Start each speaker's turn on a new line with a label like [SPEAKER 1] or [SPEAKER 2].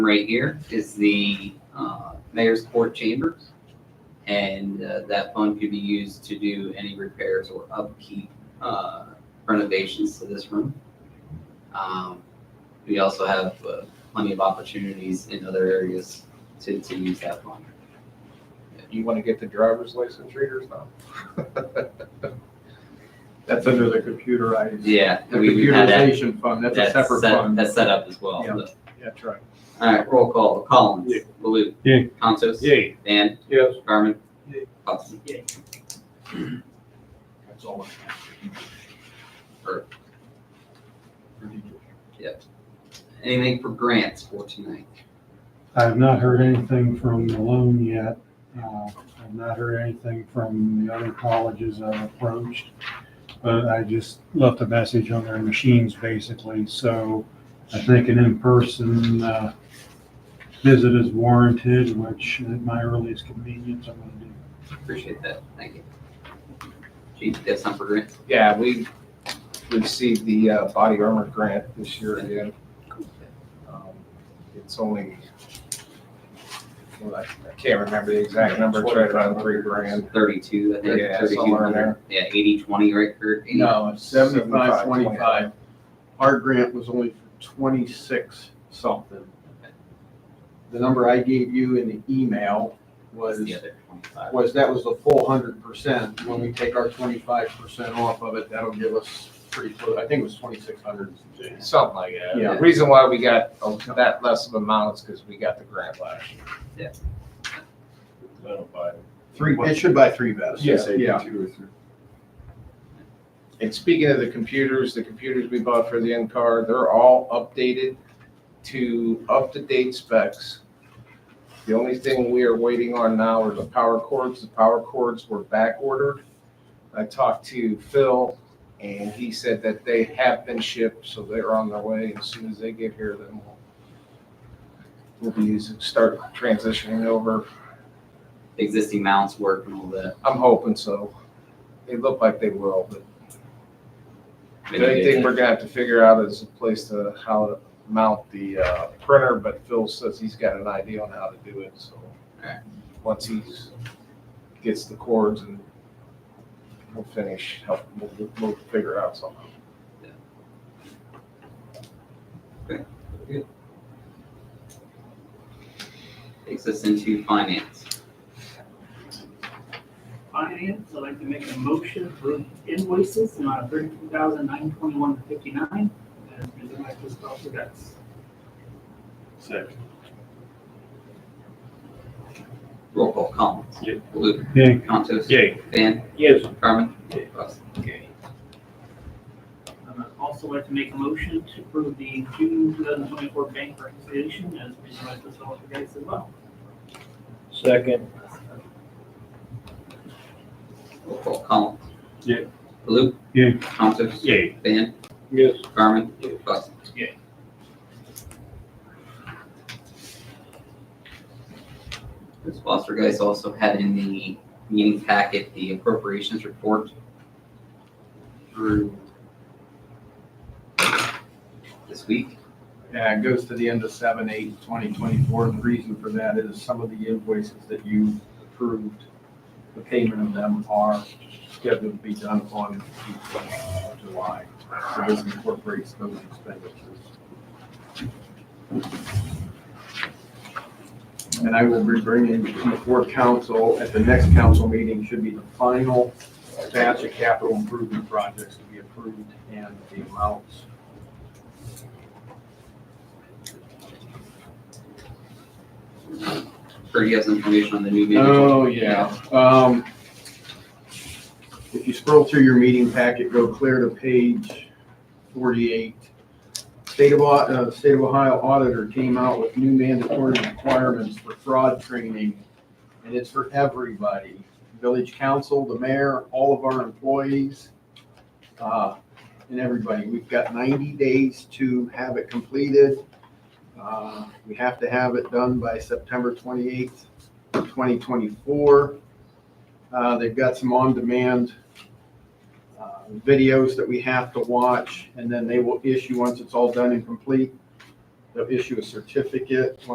[SPEAKER 1] right here is the uh, mayor's court chambers. And uh, that fund could be used to do any repairs or upkeep uh, renovations to this room. Um, We also have uh, plenty of opportunities in other areas to, to use that fund.
[SPEAKER 2] You want to get the driver's license readers now?
[SPEAKER 3] That's under the computerized.
[SPEAKER 1] Yeah.
[SPEAKER 3] The
[SPEAKER 1] we- we had that-
[SPEAKER 3] computerization fund, that's a separate
[SPEAKER 1] set-
[SPEAKER 3] fund.
[SPEAKER 1] That's set up as well.
[SPEAKER 3] Yeah.
[SPEAKER 1] so.
[SPEAKER 3] That's right.
[SPEAKER 1] All right, roll call. Collins.
[SPEAKER 3] Yeah.
[SPEAKER 1] Baloo.
[SPEAKER 4] Yeah.
[SPEAKER 1] Consos.
[SPEAKER 4] Yay.
[SPEAKER 1] Van.
[SPEAKER 3] Yes.
[SPEAKER 1] Carmen.
[SPEAKER 3] Yeah.
[SPEAKER 1] Hudson.
[SPEAKER 3] That's all.
[SPEAKER 1] Perfect. Anything for grants for tonight?
[SPEAKER 4] I have not heard anything from Malone yet. Uh, I've not heard anything from the other colleges I've approached. But I just left a message on their machines basically, so I think an in-person, uh, visit is warranted, which at my earliest convenience, I'm gonna do.
[SPEAKER 1] Appreciate that. Thank you. Chief, you got something for grants?
[SPEAKER 2] Yeah, we received the uh, body armor grant this year again. Um, It's only, well, I I can't remember the exact number, it's right around three grand.
[SPEAKER 1] Thirty-two, I think,
[SPEAKER 2] Yeah,
[SPEAKER 1] thirty-two
[SPEAKER 2] somewhere in
[SPEAKER 1] hundred.
[SPEAKER 2] there.
[SPEAKER 1] Yeah, eighty, twenty, right, Kurt? 80?
[SPEAKER 3] No, it's
[SPEAKER 2] 25.
[SPEAKER 3] seventy-five, twenty-five. Our grant was only for twenty-six something. The number I gave you in the email
[SPEAKER 1] What's
[SPEAKER 3] was,
[SPEAKER 1] the other twenty-five?
[SPEAKER 3] was that was the full hundred percent. When we take our twenty-five percent off of it, that'll give us pretty close, I think it was twenty-six hundred.
[SPEAKER 2] Something like that.
[SPEAKER 3] Yeah.
[SPEAKER 2] The reason why we got uh, that less of amount is because we got the grant last year.
[SPEAKER 1] Yeah.
[SPEAKER 3] Three, it should buy three vests.
[SPEAKER 2] Yeah, yeah.
[SPEAKER 3] Two or three.
[SPEAKER 2] And speaking of the computers, the computers we bought for the in-car, they're all updated to up-to-date specs. The only thing we are waiting on now are the power cords. The power cords were back ordered. I talked to Phil and he said that they have been shipped, so they're on their way. As soon as they get here, then we'll we'll be using, start transitioning over.
[SPEAKER 1] Existing mounts work and all that.
[SPEAKER 2] I'm hoping so. They look like they will, but
[SPEAKER 1] Maybe
[SPEAKER 2] The only
[SPEAKER 1] they-
[SPEAKER 2] thing we're gonna have to figure out is a place to how to mount the uh, printer, but Phil says he's got an idea on how to do it, so.
[SPEAKER 1] Alright.
[SPEAKER 2] Once he's, gets the cords and we'll finish, help, we'll, we'll figure out something.
[SPEAKER 1] Takes us into finance.
[SPEAKER 5] Finance, I'd like to make a motion for invoices in amount of thirty-two thousand nine twenty-one fifty-nine. And presented by Chris Dawson, that's
[SPEAKER 1] Roll call. Collins.
[SPEAKER 4] Yeah.
[SPEAKER 1] Baloo.
[SPEAKER 4] Yeah.
[SPEAKER 1] Consos.
[SPEAKER 4] Yay.
[SPEAKER 1] Van.
[SPEAKER 4] Yes.
[SPEAKER 1] Carmen. Hudson.
[SPEAKER 5] Um, I'd also like to make a motion to approve the June two thousand twenty-four bank reconciliation as presented by Chris Dawson, that's as well. Uh,
[SPEAKER 6] Second,
[SPEAKER 1] Roll call. Collins.
[SPEAKER 4] Yeah.
[SPEAKER 1] Baloo.
[SPEAKER 4] Yeah.
[SPEAKER 1] Consos.
[SPEAKER 4] Yay.
[SPEAKER 1] Van.
[SPEAKER 6] yes,
[SPEAKER 1] Carmen. Hudson. Ms. Foster guys also had in the meeting packet the appropriations report through this week.
[SPEAKER 3] Yeah, it goes to the end of seven, eight, twenty twenty-four. The reason for that is some of the invoices that you approved, the payment of them are scheduled to be done on July. So this incorporates those expenditures. And I will be bringing before council, at the next council meeting, should be the final batch of capital improvement projects to be approved and the amounts.
[SPEAKER 1] Kurt, you have some information on the new manager?
[SPEAKER 3] Oh, yeah. Um, if you scroll through your meeting packet, go clear to page forty-eight. State of, Au- uh, State of Ohio Auditor came out with new mandatory requirements for fraud training, and it's for everybody. Village council, the mayor, all of our employees, uh, and everybody. We've got ninety days to have it completed. Uh, we have to have it done by September twenty-eighth. 2024. Uh, They've got some on-demand uh, videos that we have to watch, and then they will issue, once it's all done and complete, they'll issue a certificate,